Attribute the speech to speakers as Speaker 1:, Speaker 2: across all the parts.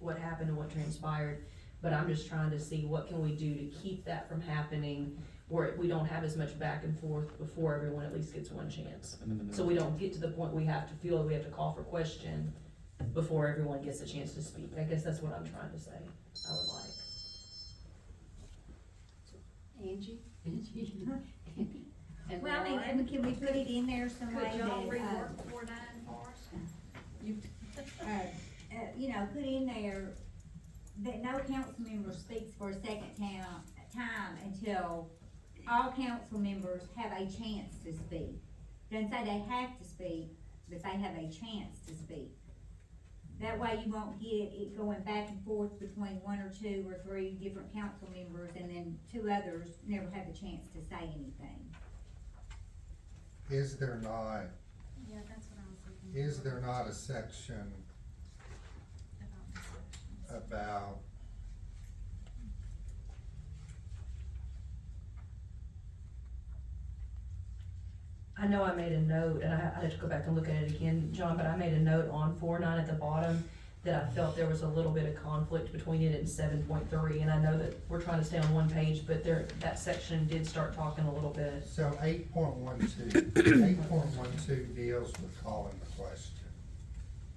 Speaker 1: what happened and what transpired, but I'm just trying to see what can we do to keep that from happening, where we don't have as much back and forth before everyone at least gets one chance. So we don't get to the point we have to feel we have to call for question before everyone gets a chance to speak. I guess that's what I'm trying to say, I would like.
Speaker 2: Angie? And
Speaker 3: Well, I mean,
Speaker 2: Lauren?
Speaker 3: and
Speaker 2: Can we put it in there some way
Speaker 3: Could
Speaker 2: that,
Speaker 3: y'all
Speaker 2: uh,
Speaker 3: rework four nine for us?
Speaker 2: uh, uh, you know, put in there that no council member speaks for a second town, time until all council members have a chance to speak. Don't say they have to speak, but they have a chance to speak. That way you won't get it going back and forth between one or two or three different council members and then two others never have a chance to say anything.
Speaker 4: Is there not,
Speaker 3: Yeah, that's what I was thinking.
Speaker 4: is there not a section
Speaker 3: about this section.
Speaker 4: about
Speaker 1: I know I made a note, and I, I had to go back and look at it again, John, but I made a note on four nine at the bottom that I felt there was a little bit of conflict between it and seven point three, and I know that we're trying to stay on one page, but there, that section did start talking a little bit.
Speaker 4: So eight point one two, eight point one two deals with calling the question.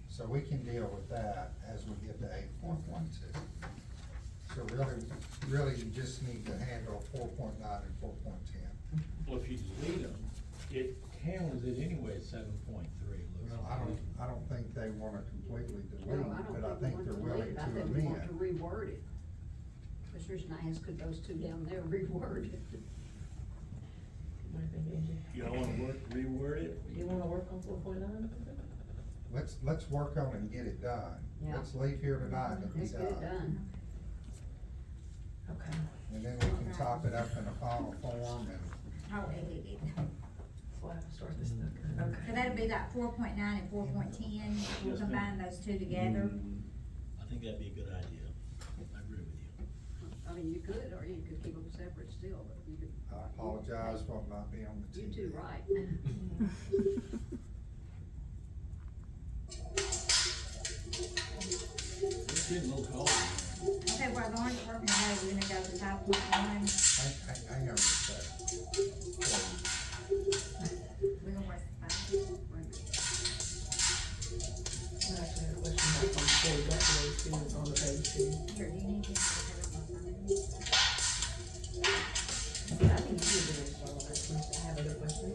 Speaker 4: So we can deal with that as we get to eight point one two. So really, really you just need to handle four point nine and four point ten.
Speaker 5: Well, if you delete them, it counts it anyway at seven point three, it looks
Speaker 4: Well,
Speaker 5: like.
Speaker 4: I don't, I don't think they wanna completely
Speaker 6: No,
Speaker 4: delete,
Speaker 6: I don't
Speaker 4: but I think
Speaker 6: we
Speaker 4: they're
Speaker 6: want to
Speaker 4: willing
Speaker 6: leave.
Speaker 4: to
Speaker 6: I think we want to
Speaker 4: amend.
Speaker 6: reword it. Commissioners and I asked, could those two down there reword it?
Speaker 1: What do you think, Angie?
Speaker 5: Y'all wanna work, reword it?
Speaker 1: You wanna work on four point nine?
Speaker 4: Let's, let's work on and get it done.
Speaker 6: Yeah.
Speaker 4: Let's leave here tonight and be
Speaker 6: Let's get it
Speaker 4: done.
Speaker 6: done.
Speaker 1: Okay.
Speaker 4: And then we can top it up in a final form and
Speaker 2: I'll edit it.
Speaker 1: So I have to start this book.
Speaker 2: So
Speaker 1: Okay.
Speaker 2: that'd be like four point nine and four point ten, we'll
Speaker 5: Yes, ma'am.
Speaker 2: combine those two together.
Speaker 4: Mm,
Speaker 5: I think that'd be a good idea, I agree with you.
Speaker 6: I mean, you could, or you could keep them separate still, but you could.
Speaker 4: I apologize for not being on the
Speaker 6: You
Speaker 4: TV.
Speaker 6: two, right?
Speaker 5: It's getting a little cold.
Speaker 2: Okay, while Lauren's working, on those, we're gonna go to five point one,
Speaker 4: Hang, hang, hang on a second.
Speaker 2: we're gonna work
Speaker 1: I
Speaker 2: five.
Speaker 1: actually had a question about four, that's the students on the page two.
Speaker 2: Here, do you need this?
Speaker 1: I think you did a good job, actually. I have other questions.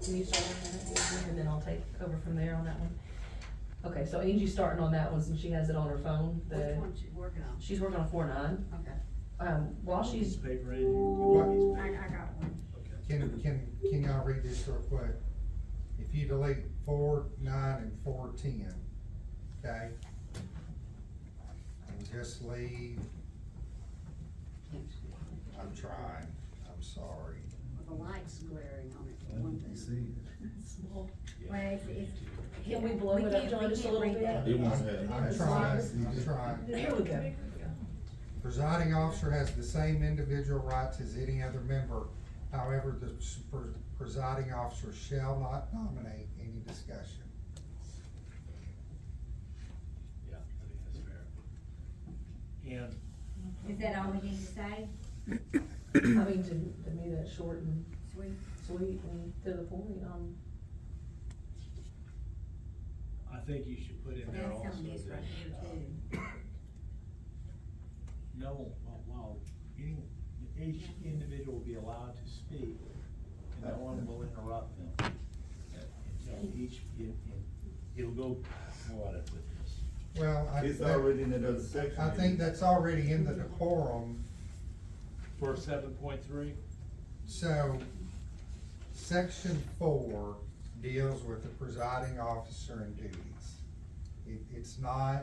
Speaker 1: Can you start on that, and then I'll take over from there on that one? Okay, so Angie's starting on that one, since she has it on her phone,
Speaker 6: Which
Speaker 1: the,
Speaker 6: one's you working on?
Speaker 1: she's working on four nine.
Speaker 6: Okay.
Speaker 1: Um, while she's,
Speaker 5: Paper in, you
Speaker 2: I, I
Speaker 5: got these
Speaker 2: got one.
Speaker 4: Can,
Speaker 5: papers.
Speaker 4: can, can y'all read this real quick? If you delete four, nine, and four, ten, okay? And just leave, I'm trying, I'm sorry.
Speaker 6: Well, The light's glaring on it for one thing.
Speaker 2: Well, it's, it's.
Speaker 1: Can we blow it up,
Speaker 2: can't-
Speaker 1: John,
Speaker 2: we
Speaker 1: just a
Speaker 2: can't
Speaker 1: little
Speaker 2: read that.
Speaker 4: I'm I'm trying, I'm trying.
Speaker 1: there we go.
Speaker 4: Presiding officer has the same individual rights as any other member. However, the pres- presiding officer shall not nominate any discussion.
Speaker 5: Yeah, I think that's fair. And
Speaker 2: Is that all we need to say?
Speaker 1: I mean, to, to me, that's short and
Speaker 2: Sweet.
Speaker 1: sweet and to the point, um,
Speaker 5: I think you should put in there
Speaker 2: That's
Speaker 5: also
Speaker 2: some of this right here
Speaker 5: that, uh,
Speaker 2: too.
Speaker 5: no, well, well, any, each individual will be allowed to speak, and no one will interrupt them. Until each, it, it- it'll go, what it with this.
Speaker 4: Well, I.
Speaker 7: It's
Speaker 4: that-
Speaker 7: already in another section.
Speaker 4: I think that's already in the decorum,
Speaker 5: For seven point three?
Speaker 4: so section four deals with the presiding officer and duties. It, it's not,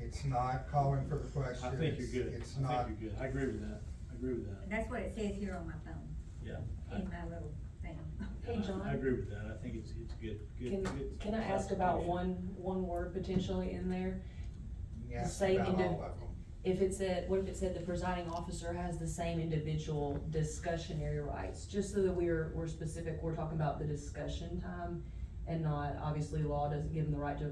Speaker 4: it's not calling for the question.
Speaker 5: I think you're good.
Speaker 4: It's
Speaker 5: I
Speaker 4: not,
Speaker 5: think you're good. I agree with that. I agree with that.
Speaker 2: That's what it says here on my phone,
Speaker 5: Yeah.
Speaker 2: in my little thing.
Speaker 1: Hey,
Speaker 5: I-
Speaker 1: John.
Speaker 5: I agree with that. I think it's, it's good, good,
Speaker 1: can,
Speaker 5: good.
Speaker 1: can I ask about
Speaker 5: classification.
Speaker 1: one, one word potentially in there?
Speaker 4: you asked
Speaker 1: Say
Speaker 4: about
Speaker 1: indi-
Speaker 4: all of them.
Speaker 1: If it said, what if it said the presiding officer has the same individual discussionary rights, just so that we're, we're specific, we're talking about the discussion time and not, obviously law doesn't give them the right to